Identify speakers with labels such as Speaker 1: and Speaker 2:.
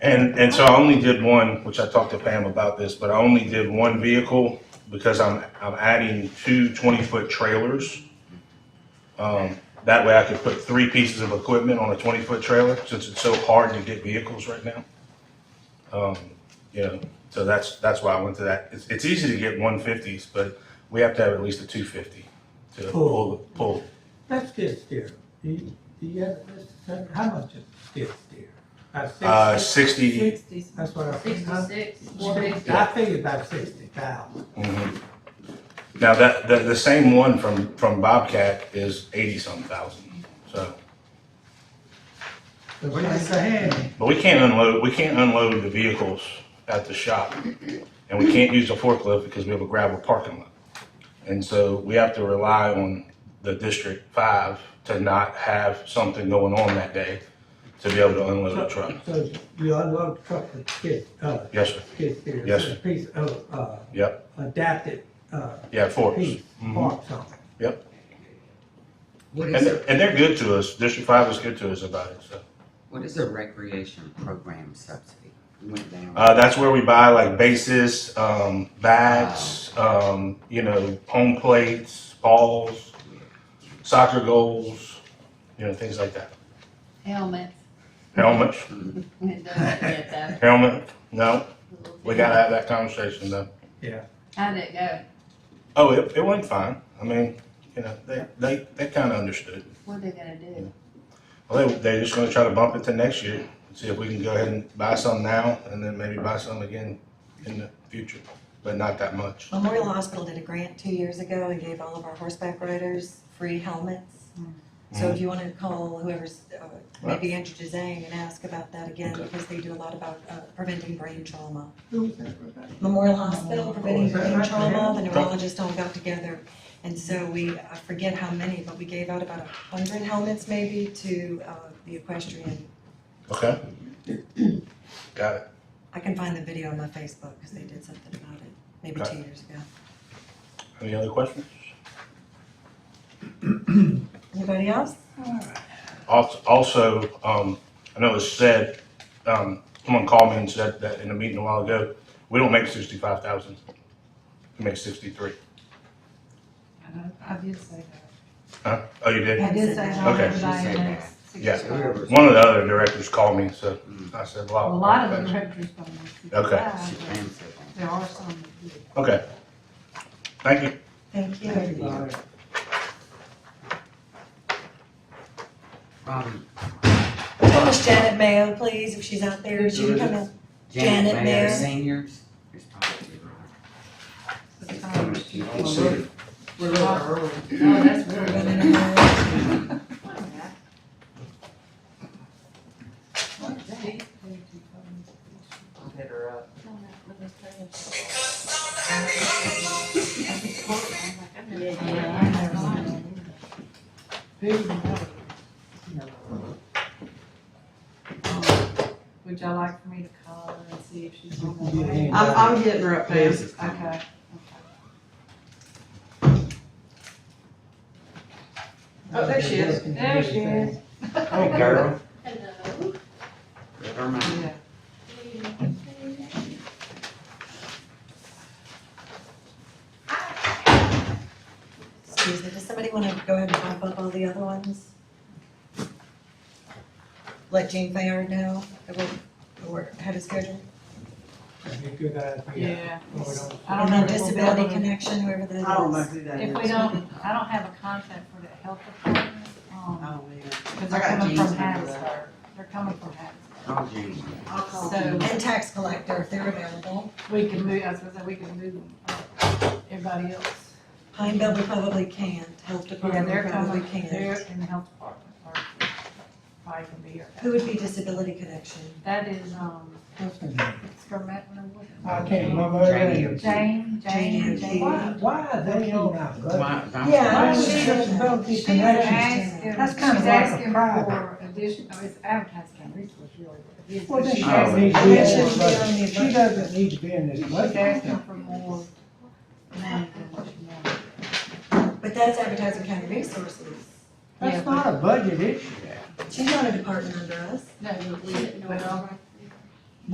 Speaker 1: And, and so I only did one, which I talked to Pam about this, but I only did one vehicle because I'm, I'm adding two 20-foot trailers. Um, That way I could put three pieces of equipment on a 20-foot trailer, since it's so hard to get vehicles right now. Um, You know, so that's, that's why I went to that. It's, it's easy to get 150s, but we have to have at least a 250 to pull, pull.
Speaker 2: That's skid steer. Do you, do you have, this? how much is skid steer? About
Speaker 1: Uh,
Speaker 2: sixty?
Speaker 1: 60,
Speaker 3: Sixty,
Speaker 2: That's what I think. huh?
Speaker 3: sixty-six, four fifty.
Speaker 2: I think about sixty thousand.
Speaker 1: Mhm. Now, that, the, the same one from, from Bobcat is eighty-some thousand, so,
Speaker 2: So that's a handy.
Speaker 1: but we can't unload, we can't unload the vehicles at the shop. And we can't use a forklift because we have a gravel parking lot. And so we have to rely on the District Five to not have something going on that day to be able to unload the truck.
Speaker 2: So you unload the truck with skid, uh,
Speaker 1: Yes, sir,
Speaker 2: skid steer.
Speaker 1: Yes,
Speaker 2: It's a
Speaker 1: sir.
Speaker 2: Piece of, uh,
Speaker 1: yep,
Speaker 2: adapted, uh,
Speaker 1: yeah, forks.
Speaker 2: piece,
Speaker 1: Mhm.
Speaker 2: parts on it.
Speaker 1: Yep,
Speaker 4: What
Speaker 1: and,
Speaker 4: is a,
Speaker 1: they're- and they're good to us, District Five is good to us about it, so.
Speaker 4: what is a recreation program subsidy? We Went down.
Speaker 1: Uh, that's where we buy like bases, um, bats, um, you know, home plates, balls, soccer goals, you know, things like that.
Speaker 3: Helmets.
Speaker 1: Helmets,
Speaker 3: It doesn't get that.
Speaker 1: helmet. No, we gotta have that conversation though.
Speaker 3: How'd it go?
Speaker 1: Oh, it, it went fine. I mean, you know, they, they, they kind of understood.
Speaker 3: What they gonna do?
Speaker 1: Well, they, they're just gonna try to bump it to next year and see if we can go ahead and buy some now and then maybe buy some again in the future, but not that much.
Speaker 5: Memorial Hospital did a grant two years ago and gave all of our horseback riders free helmets. So
Speaker 1: Mm.
Speaker 5: if you wanna call whoever's, uh, maybe Andrew Jazang and ask about that again,
Speaker 1: Okay.
Speaker 5: because they do a lot about uh, preventing brain trauma.
Speaker 2: Who was that, Rebecca?
Speaker 5: Memorial Hospital preventing
Speaker 2: Oh, is that
Speaker 5: brain
Speaker 2: right?
Speaker 5: trauma, the
Speaker 1: Yeah.
Speaker 5: neurologists all got together. And so we, I forget how many, but we gave out about a hundred helmets maybe to uh, the equestrian.
Speaker 1: Okay. Got it.
Speaker 5: I can find the video on my Facebook, because they did something about it, maybe
Speaker 1: Okay.
Speaker 5: two years ago.
Speaker 1: Any other questions?
Speaker 5: Anybody else?
Speaker 1: Als- Also, um, I know it's said, um, someone called me and said that in a meeting a while ago, we don't make sixty-five thousand. We make sixty-three.
Speaker 3: I did say
Speaker 1: Huh? Oh, you did?
Speaker 3: I did say that.
Speaker 1: Okay.
Speaker 3: Everybody
Speaker 4: She said
Speaker 3: makes
Speaker 1: Yeah.
Speaker 3: 65.
Speaker 4: Whoever's-
Speaker 1: One of the other directors called me, so I said,
Speaker 3: A
Speaker 1: wow.
Speaker 3: lot of the directors don't make sixty-five.
Speaker 1: Oh, Okay.
Speaker 4: She
Speaker 3: but
Speaker 4: plans it on.
Speaker 3: There are some that do.
Speaker 1: Okay. Thank you.
Speaker 5: Thank you.
Speaker 2: Thank you, Laura.
Speaker 4: Um,
Speaker 5: Miss Janet Mayo, please, if she's out there, she can come in. Janet
Speaker 4: Janet Mayer
Speaker 5: Mayer.
Speaker 4: seniors. It's probably wrong.
Speaker 3: It's
Speaker 4: It's
Speaker 5: Um,
Speaker 3: kind
Speaker 4: coming
Speaker 3: of-
Speaker 4: to you.
Speaker 2: Well, we're- We're a little early.
Speaker 3: Oh, that's really
Speaker 5: But
Speaker 3: good.
Speaker 5: in her-
Speaker 6: Hit her up.
Speaker 3: Um, Would y'all like for me to call her and see if she's on
Speaker 2: You
Speaker 3: the
Speaker 2: can.
Speaker 3: way?
Speaker 6: I'm, I'm hitting her up, Pam.
Speaker 4: This is coming.
Speaker 3: Okay.
Speaker 6: Oh, there she is.
Speaker 3: There she is.
Speaker 2: Oh,
Speaker 1: Oh,
Speaker 4: Hey, girl.
Speaker 7: Hello.
Speaker 4: Never mind.
Speaker 3: Yeah.
Speaker 5: Excuse me, does somebody want to go ahead and pop up all the other ones? Let Jean Fayard know that we'll, we're ahead of schedule.
Speaker 2: That'd be a good idea.
Speaker 3: Yeah.
Speaker 2: Well, we don't-
Speaker 3: I
Speaker 5: And
Speaker 3: don't know
Speaker 5: then
Speaker 3: if we'll be
Speaker 5: Disability
Speaker 3: able to-
Speaker 5: Connection, whoever that is.
Speaker 6: I don't know who that is.
Speaker 3: If we don't, I don't have a contact for the health department, um,
Speaker 6: Oh, man.
Speaker 3: because
Speaker 6: I
Speaker 3: they're
Speaker 6: got
Speaker 3: coming
Speaker 6: Jean's
Speaker 3: from
Speaker 6: number, though.
Speaker 3: Hattiesburg. They're coming from Hattiesburg.
Speaker 4: Oh, Jean.
Speaker 6: I'll call
Speaker 3: So-
Speaker 6: Jean.
Speaker 5: And Tax Collector, if they're available.
Speaker 3: We can move, I was gonna say, we can move them, everybody else.
Speaker 5: Pineville, we probably can't, Health
Speaker 3: Yeah,
Speaker 5: Department,
Speaker 3: they're
Speaker 5: we probably
Speaker 3: coming, they're
Speaker 5: can't.
Speaker 3: in the health department, or probably can be here.
Speaker 5: Who would be Disability Connection?
Speaker 3: That is, um,
Speaker 2: What's her name?
Speaker 3: Skirmatna, what?
Speaker 2: I can't remember her
Speaker 4: Jane.
Speaker 2: name.
Speaker 3: Jane, Jane,
Speaker 5: Jane.
Speaker 2: Why,
Speaker 3: Jane.
Speaker 2: why are they on our budget?
Speaker 4: Why- I'm
Speaker 5: Yeah,
Speaker 4: sorry.
Speaker 2: Why
Speaker 5: I
Speaker 2: is
Speaker 5: was-
Speaker 2: it disability
Speaker 3: She's
Speaker 2: connection?
Speaker 3: asking,
Speaker 2: That's
Speaker 3: she's
Speaker 2: kind of like a
Speaker 3: asking
Speaker 2: private.
Speaker 3: for addition, oh, it's advertising and resource, really. what it is,
Speaker 2: Well,
Speaker 3: but
Speaker 2: then she
Speaker 3: she's
Speaker 2: doesn't
Speaker 3: asking-
Speaker 2: need to
Speaker 5: I
Speaker 2: be
Speaker 5: mean,
Speaker 2: on
Speaker 5: she
Speaker 2: this
Speaker 5: shouldn't be on
Speaker 2: budget.
Speaker 5: the
Speaker 2: She
Speaker 5: budget.
Speaker 2: doesn't need to be in this
Speaker 3: She's asking
Speaker 2: budget.
Speaker 3: for more money than what she wanted.
Speaker 5: But that's Advertising County Resources.
Speaker 3: Yeah,
Speaker 2: That's
Speaker 3: but-
Speaker 2: not a budget issue.
Speaker 5: She's not a department under us.
Speaker 3: No, but we, but all right,